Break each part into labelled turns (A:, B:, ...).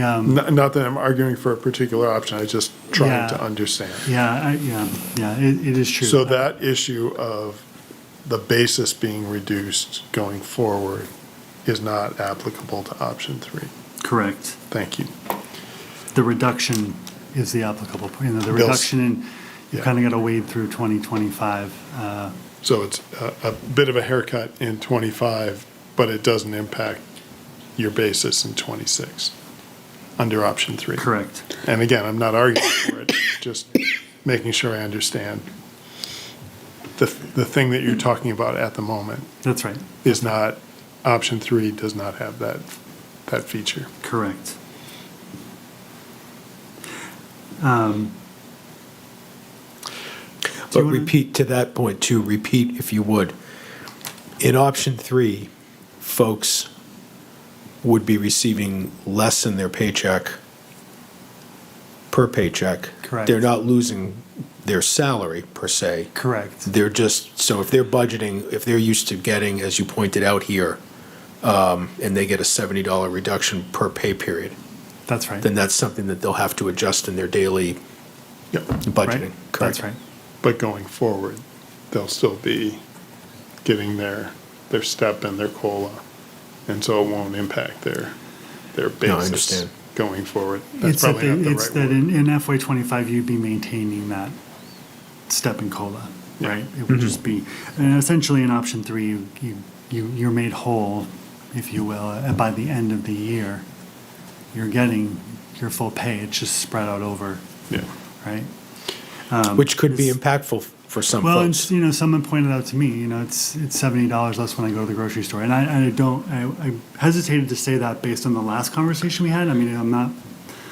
A: um,
B: Not, not that I'm arguing for a particular option, I just trying to
A: Yeah.
B: understand.
A: yeah, I, yeah, yeah, it, it is true.
B: So that issue of the basis being reduced going forward is not applicable to option three.
A: Correct.
B: Thank you.
A: The reduction is the applicable, you know, the
B: Bills.
A: reduction in, you
B: Yeah.
A: kind of got to wade through 2025. uh,
B: So it's a, a bit of a haircut in twenty-five, but it doesn't impact your basis in twenty-six under option three.
A: Correct.
B: And again, I'm not arguing for it, just making sure I understand the, the thing that you're talking about at the moment
A: That's right.
B: is not, option three does not have that, that feature.
A: Correct. Um, Do
C: But
A: you wanna-
C: repeat to that point too, repeat if you would. In option three, folks would be receiving less in their paycheck per paycheck.
A: Correct.
C: They're not losing their salary per se.
A: Correct.
C: They're just, so if they're budgeting, if they're used to getting, as you pointed out here, um, and they get a seventy dollar reduction per pay period,
A: That's right.
C: then that's something that they'll have to adjust in their daily
B: Yep.
A: Right?
C: budgeting.
A: That's
C: Correct.
A: right.
B: But going forward, they'll still be getting their, their step and their COLA. And so it won't impact their, their
C: No, I
B: basis
C: understand.
B: going forward. That's
A: It's that,
B: probably
A: they-
B: not the
A: it's
B: right
A: that
B: word.
A: in in FY '25, you'd be maintaining that step and COLA,
B: Yeah. Mm-hmm.
A: right? It would just be, and essentially in option three, you, you, you- you're made whole, if you will, uh, by the end of the year. You're getting your full pay, it's just spread out over,
B: Yeah.
A: right?
C: Which could be
A: It's-
C: impactful for some
A: Well,
C: folks.
A: and, you know, someone pointed out to me, you know, it's it's seventy dollars less when I go to the grocery store, and I, I don't, I, I hesitated to say that based on the last conversation we had. I mean, I'm not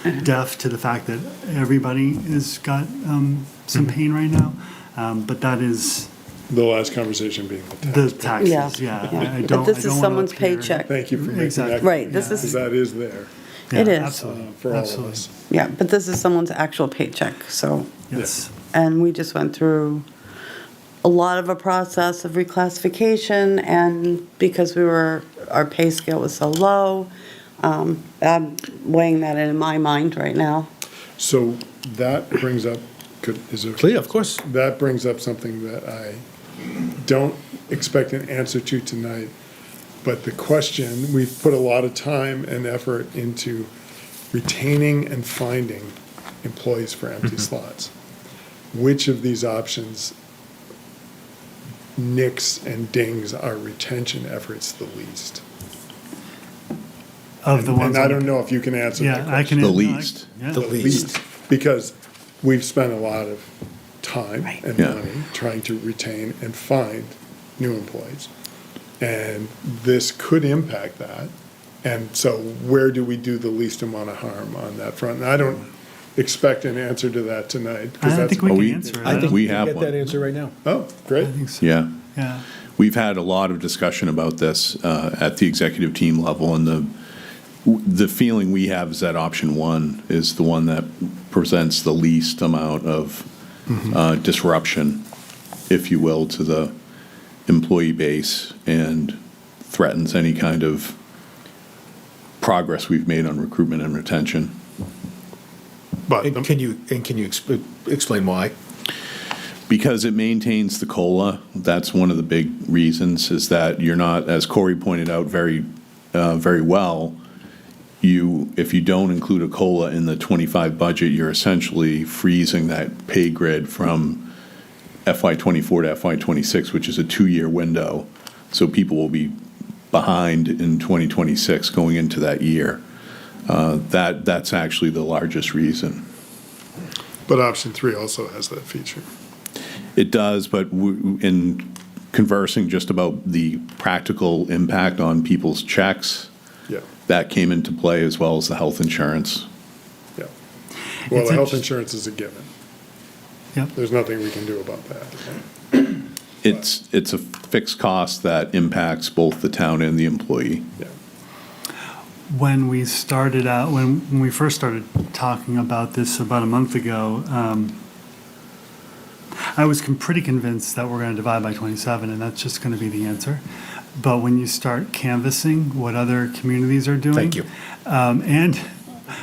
D: Uh-huh.
A: deaf to the fact that everybody has got um, some
C: Hmm.
A: pain right now, um, but that is
B: The last conversation being the
A: the
B: tax. bill.
D: Yeah.
A: taxes. Yeah, I, I don't.
D: But this
A: I
D: is
A: don't wanna
D: someone's
A: appear-
D: paycheck.
B: Thank you for making that.
A: Exactly.
D: Right, this
B: Because
D: is-
B: that is there
D: It
A: Yeah,
D: is.
B: uh,
A: absolutely
B: for all of
A: absolutely.
B: us.
D: Yeah, but this is someone's actual paycheck, so,
A: Yes,
D: and we just went through a lot of a process of reclassification, and because we were, our pay scale was so low, um, I'm weighing that in my mind right now.
B: So that brings up, could, is there?
C: Yeah, of course.
B: That brings up something that I don't expect an answer to tonight. But the question, we've put a lot of time and effort into retaining and finding employees for
A: Mm-hmm.
B: empty slots. Which of these options nicks and dings our retention efforts the least?
A: of the
B: And-
A: ones.
B: And I
A: on-
B: don't know if you can answer that
A: Yeah, I can.
B: question.
E: The
A: no, I-
E: least.
A: yeah.
C: The least.
B: Because we've spent a lot of time
D: Right.
B: and
E: Yeah.
B: money trying to retain and find new employees. And this could impact that. And so where do we do the least amount of harm on that front? And I don't expect an answer to that tonight. 'cause
A: I don't
B: that's-
A: think we
E: Are
A: can
E: we-
A: answer it.
E: I
A: I
E: think
A: don't-
E: we have
C: Get that
E: one.
C: answer right now.
B: Oh, great.
A: I think so.
E: Yeah.
A: Yeah.
E: We've had a lot of discussion about this uh, at the executive team level, and the the feeling we have is that option one is the one that presents the least amount of uh, disruption, if you will, to the employee base and threatens any kind of progress we've made on recruitment and retention.
B: But
C: And
B: the-
C: can you, and can you expl- explain why?
E: Because it maintains the cola. That's one of the big reasons is that you're not, as Corey pointed out very, uh, very well. You, if you don't include a cola in the 25 budget, you're essentially freezing that pay grid from FY24 to FY26, which is a two-year window. So people will be behind in 2026 going into that year. Uh, that that's actually the largest reason.
B: but option three also has that feature.
E: It does, but w- in conversing just about the practical impact on people's checks,
B: Yeah,
E: that came into play as well as the health insurance.
B: yeah. Well,
A: It's
B: the health
A: interest-
B: insurance is a given.
A: Yep.
B: There's nothing we can do about that.
E: It's, it's a fixed cost that impacts both the town and the employee.
A: when we started out, when, when we first started talking about this about a month ago, um, I was con- pretty convinced that we're going to divide by 27, and that's just going to be the answer. But when you start canvassing what other communities are doing,
C: Thank you.
A: um, and